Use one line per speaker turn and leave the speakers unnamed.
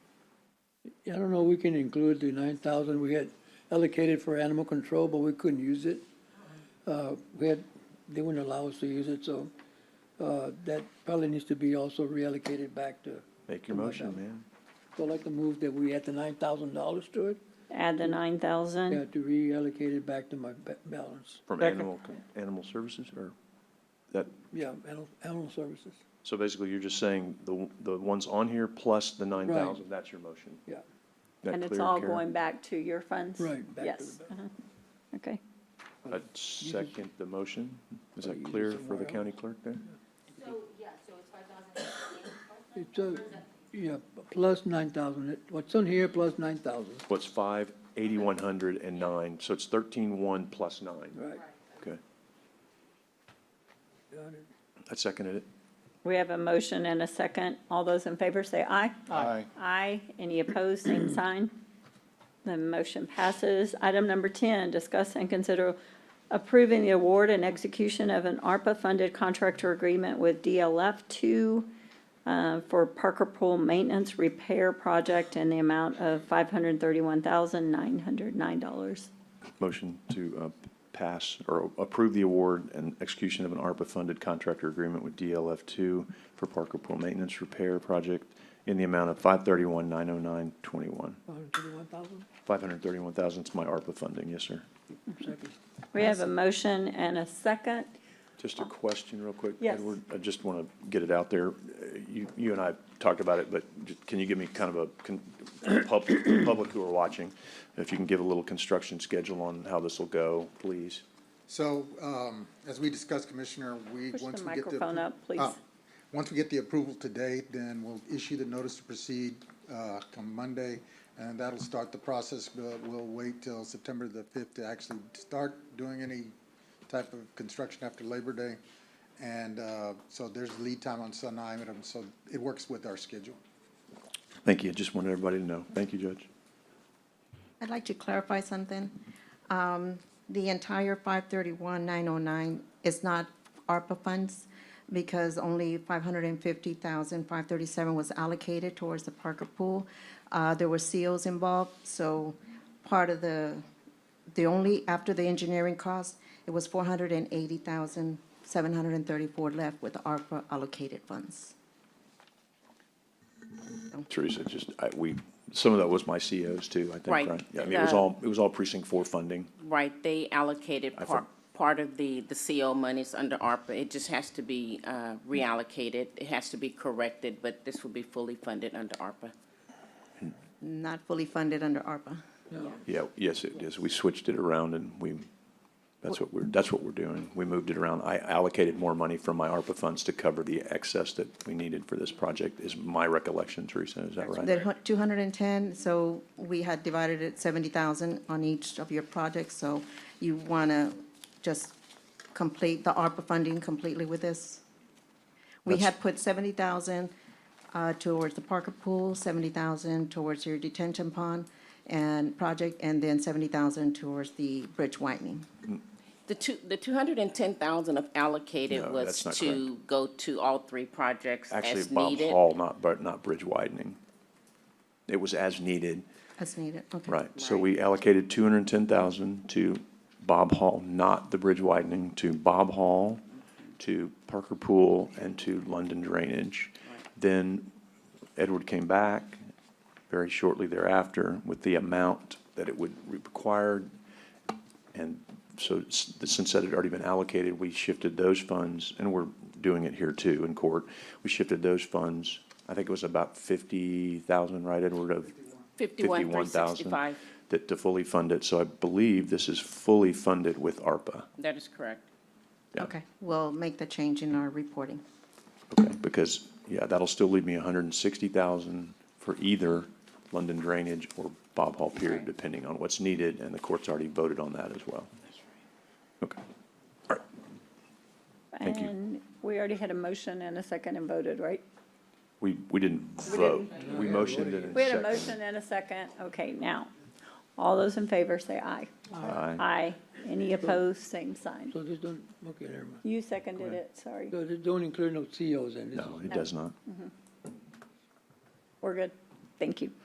I don't know, we can include the nine thousand we had allocated for animal control, but we couldn't use it. Uh, we had, they wouldn't allow us to use it, so, uh, that probably needs to be also reallocated back to.
Make your
to my
motion,
ballot.
man.
So I'd like to move that we add the nine thousand dollars to it,
Add the nine
yeah,
thousand.
to reallocate it back to my ba- balance.
From
Second.
animal, con- animal services or that,
Yeah, animal, animal services,
so basically you're just saying the, the ones on here plus the nine thousand, that's your motion.
yeah,
That
And it's
clear,
all
Karen?
going back to your funds?
right, back to the
Yes,
balance.
uh-huh. okay.
I second the motion. Is
Or
that
use it
clear for
somewhere
the
else.
county clerk there?
So, yeah, so it's five thousand.
It's a, yeah, plus nine thousand, what's on here plus nine thousand,
What's five, eighty-one hundred and nine, so it's thirteen-one plus nine.
right?
Okay,
Got it.
I seconded it.
We have a motion and a second. All those in favor say aye.
Aye.
Aye. Any opposed, same sign. The motion passes. Item number 10, discuss and consider approving the award and execution of an ARPA-funded contractor agreement with DLF 2 uh, for Parker Pool Maintenance Repair Project in the amount of $531,909.
Motion to uh, pass or approve the award and execution of an ARPA-funded contractor agreement with DLF two for Parker Pool Maintenance Repair Project in the amount of five thirty-one, nine oh nine, twenty-one.
Hundred thirty-one thousand,
Five hundred thirty-one thousand is my ARPA funding, yes, sir.
second.
We have a motion and a second.
Just a question real quick.
Yes.
Edward, I just want to get it out there. Uh, You, you and I talked about it, but ju- can you give me kind of a, con- pub- public who are watching, if you can give a little construction schedule on how this will go, please?
So, um, as we discussed, Commissioner, we,
Push the
once we get the.
microphone up, please.
Oh, Once we get the approval today, then we'll issue the notice to proceed, uh, come Monday, and that'll start the process, but we'll wait till September the fifth to actually start doing any type of construction after Labor Day. And, uh, so there's lead time on some items, so it works with our schedule.
Thank you. Just wanted everybody to know. Thank you, Judge.
I'd like to clarify something. Um, The entire 531,909 is not ARPA funds because only 550,537 was allocated towards the Parker Pool. Uh, There were COs involved, so part of the, the only, after the engineering cost, it was 480,734 left with ARPA allocated funds.
Teresa, just, I, we, some of that was my COs too, I think,
Right.
right? Yeah, I mean, it was
Uh,
all, it was all precinct four funding.
Right, they allocated
I
part,
for-
part of the, the CO monies under ARPA. It just has to be uh, reallocated. It has to be corrected, but this will be fully funded under ARPA.
Not fully funded under ARPA.
Yeah, yes, it is. We switched it around and we, that's what we're, that's what we're doing. We moved it around. I allocated more money from my ARPA funds to cover the excess that we needed for this project, is my recollection, Teresa, is that
They're
right?
hu- 210, so we had divided it 70,000 on each of your projects, so you want to just complete the ARPA funding completely with this? We
That's-
had put 70,000 uh, towards the Parker Pool, 70,000 towards your detention pond and project, and then 70,000 towards the bridge widening.
The two, the two hundred and ten thousand of allocated
No,
was
that's not
to go to all three projects
Actually,
as
Bob
needed.
Hall, not, but not bridge widening. It was as needed,
That's needed, okay.
right? So
Right.
we allocated two hundred and ten thousand to Bob Hall, not the bridge widening, to Bob Hall, to Parker Pool, and to London Drainage. Then Edward came back very shortly thereafter with the amount that it would require. And so s- since that had already been allocated, we shifted those funds, and we're doing it here too in court. We shifted those funds, I think it was about fifty thousand, right, Edward, of?
Fifty-one, three
51,000,
sixty-five.
That to fully fund it. So I believe this is fully funded with ARPA.
That is correct.
Yeah.
Okay, we'll make the change in our reporting.
Okay, because, yeah, that'll still leave me hundred and sixty thousand for either London Drainage or Bob Hall Pier,
Right.
depending on what's needed, and the court's already voted on that as well. Okay. All right, Thank you.
And we already had a motion and a second and voted, right?
we, we didn't vote. We motioned it in second.
We had a motion and a second. Okay, now, all those in favor say aye.
Aye.
Aye. Any opposed, same sign.
So this don't, okay, never mind.
You seconded it, sorry.
So this don't include no COs in E this?
No, it does not.
We're good. Thank you.